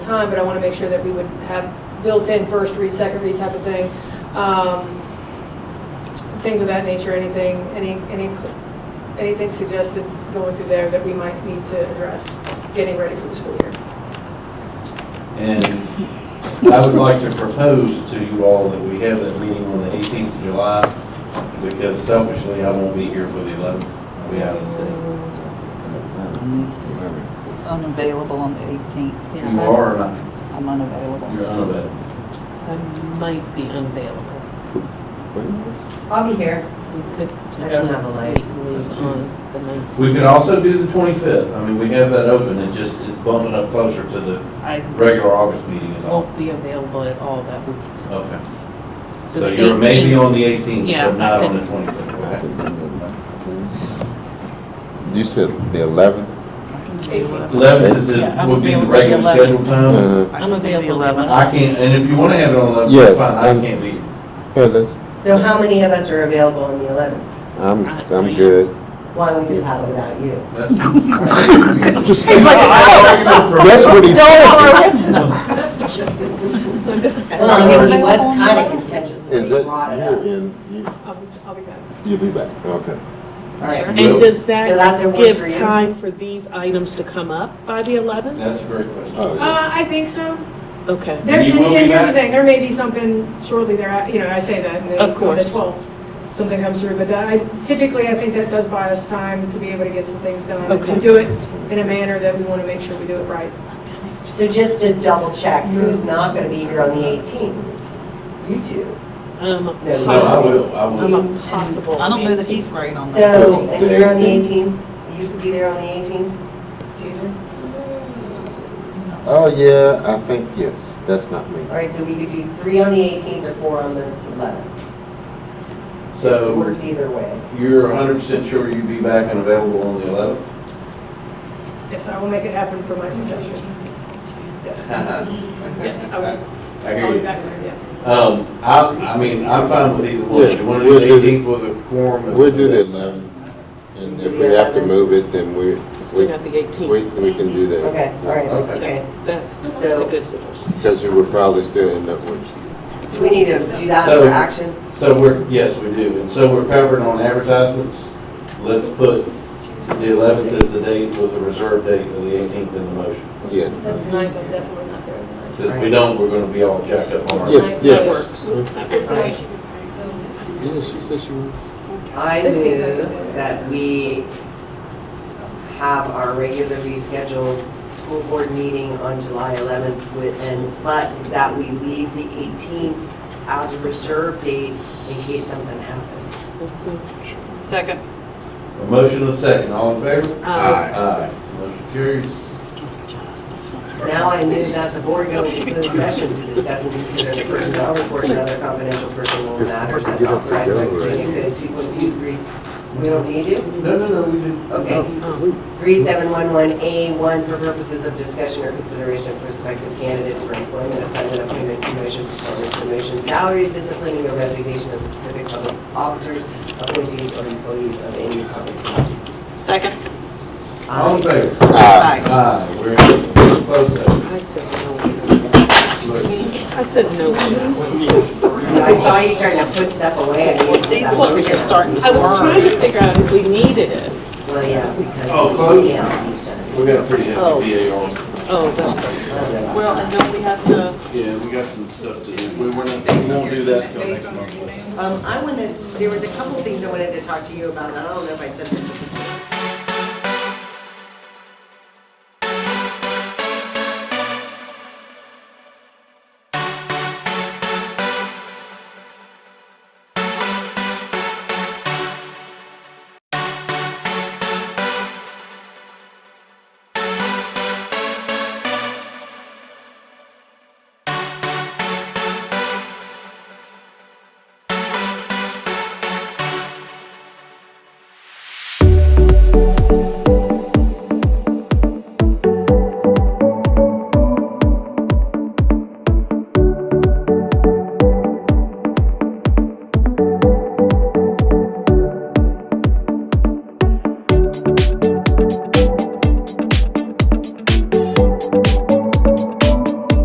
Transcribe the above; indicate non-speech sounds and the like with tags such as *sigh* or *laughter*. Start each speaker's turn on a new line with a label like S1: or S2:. S1: time, but I want to make sure that we would have built-in first read, second read type of thing. Um, Things of that nature, anything, any, any, anything suggested going through there that we might need to address, getting ready for the school year.
S2: And I would like to propose to you all that we have that meeting on the 18th of July, because selfishly, I won't be here for the 11th. I'll be out of state.
S3: Unavailable on the 18th.
S2: You are or not?
S3: I'm unavailable.
S2: You're unavailable.
S4: I might be unavailable.
S5: I'll be here.
S4: We could potentially.
S5: I don't have a light.
S4: Leave on the nineteenth.
S2: We could also do the 25th. I mean, we have that open. It just, it's bumping up closer to the
S4: I
S2: regular August meeting is all.
S4: won't be available at all that week.
S2: Okay.
S4: Oh. So
S2: So
S4: the
S2: you're maybe
S4: 18th *laughs*
S2: on the 18th,
S4: Yeah,
S2: but not
S4: I
S2: on the
S4: think-
S2: 25th. Okay.
S6: You said the eleventh?
S3: I can do
S1: Eighteenth.
S3: 11th.
S2: 11th is,
S4: Yeah,
S2: the-
S4: I'm
S2: would be the
S4: available
S2: regular
S4: the 11th.
S2: scheduled time.
S6: Uh,
S4: I'm available the 11th.
S2: I can't, and if you want to have it on 11th,
S6: Yeah,
S2: that's fine. I
S6: I'm-
S2: can't be. here.
S6: well, that's,
S5: So how many of us are available on the 11th?
S6: I'm, I'm good.
S5: Why don't we do that without you?
S2: That's. I-
S6: That's what he said.
S5: Well, I mean, he was kind of contentious that
S6: Is
S5: he
S6: it,
S5: brought it up.
S6: you're in, you,
S1: I'll be- I'll be back.
S6: you'll be back, okay.
S5: All right.
S4: And does that
S5: So that's a one
S4: give
S5: for you?
S4: time for these items to come up by the 11th?
S2: That's a great question.
S6: Oh, yeah.
S1: Uh, I think so.
S4: Okay.
S1: There,
S2: You
S1: and,
S2: will be
S1: and here's the
S2: back?
S1: thing, there may be something shortly there, I- you know, I say that, and then on
S4: Of
S1: the
S4: course.
S1: twelfth, something comes through, but that- I, typically, I think that does buy us time to be able to get some things done. If we
S4: Okay.
S1: do it in a manner that we want to make sure we do it right.
S5: So just to double check,
S4: Mm-hmm.
S5: who's not going to be here on the 18th? You two.
S4: Um,
S5: No,
S2: No, I
S4: possible.
S2: will, I
S4: I'm
S2: will.
S4: a possible.
S3: I don't know that
S4: 18th.
S3: he's great on that.
S5: So, and
S6: The
S5: you're on the
S6: 18th.
S5: 18th? You could be there on the 18th, Susan?
S6: Oh, yeah, I think, yes, that's not me.
S5: All right, so we could do three on the 18th or four on the 11th. It
S2: So
S5: works either way.
S2: you're hundred percent sure you'd be back and available on the eleventh? *laughs*
S1: Yes, I will make it happen for my suggestion. Yes, yes, I will,
S2: I
S1: I'll
S2: hear
S1: be
S2: you.
S1: back there, yeah.
S2: Um, I, I mean, I'm fine with either one.
S6: Yeah,
S2: You want to do the
S6: we'll do the-
S2: eighteenth with a quorum? and-
S6: We'll do the eleventh, and if we have to move it, then we,
S4: It's
S6: we,
S4: still not the 18th.
S6: we we can do that.
S5: Okay, all right,
S2: Okay.
S5: okay.
S4: That- That's
S5: So-
S4: a good suggestion.
S6: Because you would probably still end up with,
S5: Do we need to do that
S2: So-
S5: for action?
S2: So we're, yes, we do. And so we're covered on advertisements. Let's put the eleventh as the date with the reserve date of the eighteenth in the motion.
S6: yeah,
S1: That's ninth, I'm definitely not there.
S2: Because if we don't, we're going to be all jacked up on our.
S6: Yeah, yeah.
S4: That works. That works.
S6: yeah, she said she would.
S5: I
S1: 16th, I
S5: move
S1: think.
S5: that we have our regularly scheduled school board meeting on July 11th with, and, but that we leave the 18th as a reserve date in case something happens.
S3: Second.
S2: A motion and a second. All in favor?
S4: Um,
S2: Aye. Motion carries.
S5: Now I move that the board go into closed session to discuss and consider the personnel report and other confidential personal matters as authorized by Virginia Code 2.2. We don't need it?
S2: No, no, no, we did.
S5: Okay.
S4: um,
S5: 3711A1 for purposes of discussion or consideration of prospective candidates for employment, assignment, appointment, promotion, performance, promotion, salaries, disciplining, or resignation of specific public officers, appointees, or employees of any public body.
S3: Second.
S2: All in favor?
S6: Ah,
S3: Aye.
S2: Aye, we're in closed session.
S4: I said no. I said no. to that one.
S5: Um, I saw you starting to put stuff away. I mean,
S3: Well, Steve's
S5: that's-
S3: looking, you're starting to
S4: I was trying
S3: swerve.
S4: to figure out if we needed it.
S5: *laughs* Well, yeah, because.
S2: Oh, close?
S5: Yeah, he's just-
S2: We got a pretty
S4: Oh.
S2: hefty VA on.
S4: Oh, that's
S5: I don't know about
S3: Well,
S5: that.
S3: and then we have to,
S2: Yeah, we got some stuff to do. We won't, we won't do that till next month.
S5: Um, I wanted, there was a couple things I wanted to talk to you about, and I don't know if I said this at the